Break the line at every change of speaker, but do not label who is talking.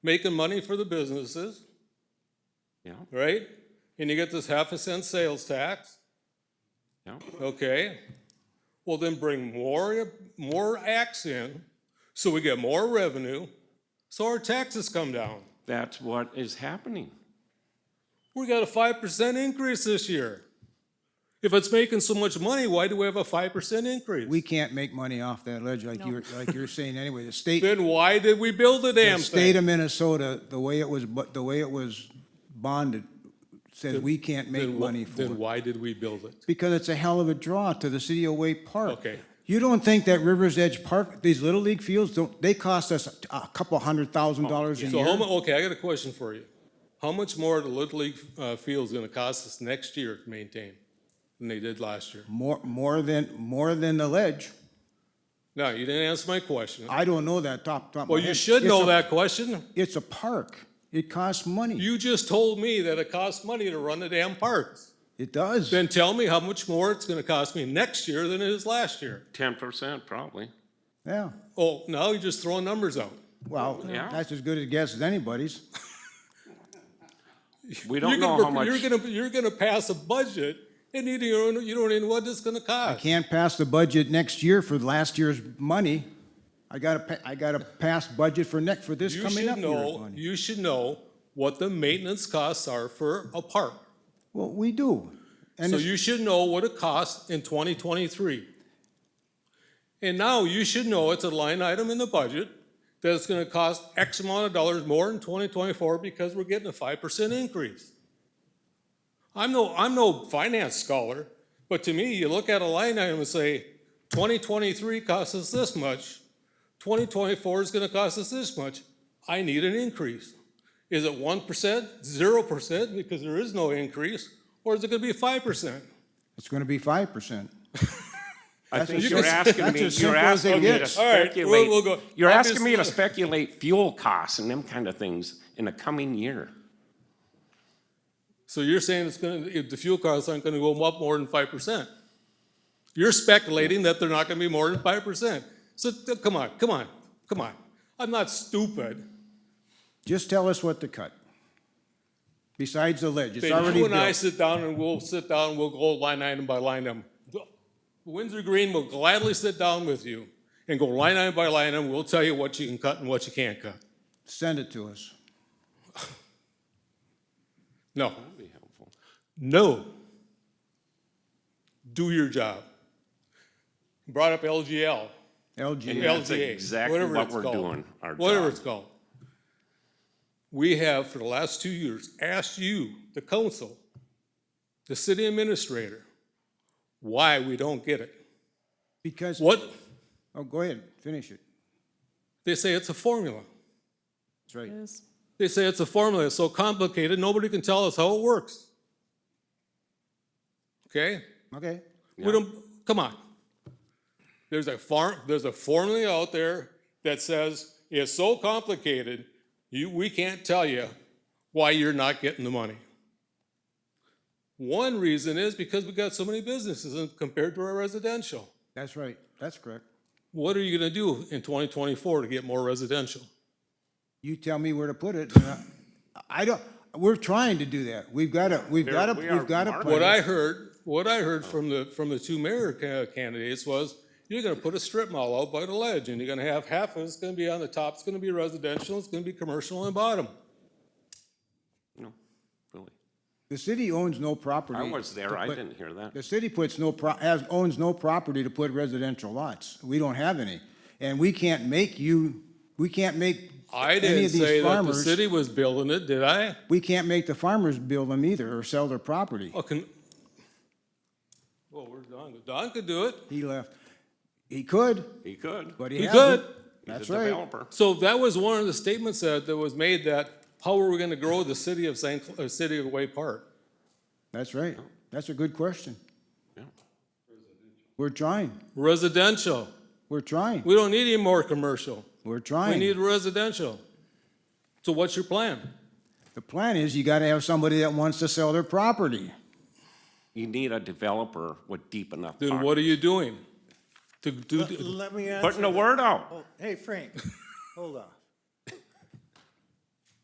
making money for the businesses,
Yeah,
right? And you get this half a cent sales tax,
yeah.
okay? Well, then bring more, more acts in, so we get more revenue, so our taxes come down.
That's what is happening.
We got a five percent increase this year. If it's making so much money, why do we have a five percent increase?
We can't make money off that ledge like you're, like you're saying anyway. The state,
Then why did we build the
the
damn
state
thing?
of Minnesota, the way it was, bu- the way it was bonded, says we can't make
Then wh-
money for
Then
it.
why did we build it?
Because it's a hell of a draw to the city of Wake Park.
Okay.
You don't think that Rivers Edge Park, these Little League fields, don't, they cost us a a couple hundred thousand dollars a
So how
year?
mu, okay, I got a question for you. How much more are the Little League, uh, field's gonna cost us next year to maintain than they did last year?
More, more than, more than the ledge.
No, you didn't answer my question.
I don't know that top, top of my
Well, you
head.
should
It's
know
a-
that question.
It's a park. It costs money.
You just told me that it costs money to run the damn parks.
It does.
Then tell me how much more it's gonna cost me next year than it is last year.
Ten percent probably.
Yeah.
Oh, now you're just throwing numbers out.
Well,
Yeah.
that's as good a guess as anybody's.
You're
We don't know how
gonna,
much.
you're gonna, you're gonna pass a budget and you don't, even- you don't even know what it's gonna cost.
Can't pass the budget next year for last year's money. I gotta, pa- I gotta pass budget for next, for this
You
coming up
should
year's
know,
money.
you should know what the maintenance costs are for a park.
Well, we do. And
So
it's-
you should know what it costs in twenty twenty-three. And now you should know it's a line item in the budget that it's gonna cost X amount of dollars more in twenty twenty-four because we're getting a five percent increase. I'm no, I'm no finance scholar, but to me, you look at a line item and say, twenty twenty-three costs us this much, twenty twenty-four is gonna cost us this much, I need an increase. Is it one percent, zero percent, because there is no increase, or is it gonna be five percent?
it's gonna be five percent.
I think
as-
you're
that's-
asking
that's
me,
as
you're
simple as it
asking me to
gets.
All right, we'll-
speculate.
we'll go.
You're asking me to
Obviously-
speculate fuel costs and them kind of things in the coming year.
So you're saying it's gonna, if the fuel costs aren't gonna go up more than five percent? You're speculating that they're not gonna be more than five percent. So, th- come on, come on, come on. I'm not stupid.
Just tell us what to cut. Besides the ledge, it's
Then
already
you and I
built.
sit down and we'll sit down, we'll go line item by line item. Windsor Green will gladly sit down with you and go line item by line item. We'll tell you what you can cut and what you can't cut.
Send it to us.
No,
That'd be helpful.
no. Do your job. Brought up LGL.
LG.
Yeah, that's
LGA,
exactly
whatever
what
it's
we're
called.
doing, our
Whatever
job.
it's called. We have, for the last two years, asked you, the council, the city administrator, why we don't get it.
Because,
What,
oh, go ahead, finish it.
they say it's a formula.
That's right.
They say it's a formula, it's so complicated, nobody can tell us how it works. Okay?
Okay.
We don't, come on. There's a farm, there's a formula out there that says it's so complicated, you, we can't tell you why you're not getting the money. One reason is because we got so many businesses and compared to our residential.
That's right. That's correct.
What are you gonna do in twenty twenty-four to get more residential?
You tell me where to put it. and I- I don't, we're trying to do that. We've got to, we've
There-
got to,
we are
we've got to.
marketing.
What I heard, what I heard from the, from the two mayor ca- candidates was, you're gonna put a strip mall out by the ledge, and you're gonna have half of it's gonna be on the top, it's gonna be residential, it's gonna be commercial on the bottom.
No, really.
The city owns no property.
I was
to
there. I
put-
didn't hear that.
The city puts no, pro- has, owns no property to put residential lots. We don't have any. And we can't make you, we can't make
I
any
didn't
of these
say that the
farmers.
city was building it, did I?
We can't make the farmers build them either or sell their property.
Oh, can, well, where's Don? Don could do it,
He left. He could,
He could.
but he
he
hasn't.
could.
He's
That's
a
right.
developer.
So that was one of the statements that, that was made that, how are we gonna grow the city of St., Cl- uh, city of Way Park?
That's right. That's a good question.
Yeah.
We're trying.
Residential,
We're trying.
we don't need any more commercial.
We're
We
trying.
need residential. So what's your plan?
The plan is you gotta have somebody that wants to sell their property.
You need a developer with deep enough.
Then
pockets.
what are you doing? To do,
Let me answer.
Putting the word out.
Hey, Frank, hold on.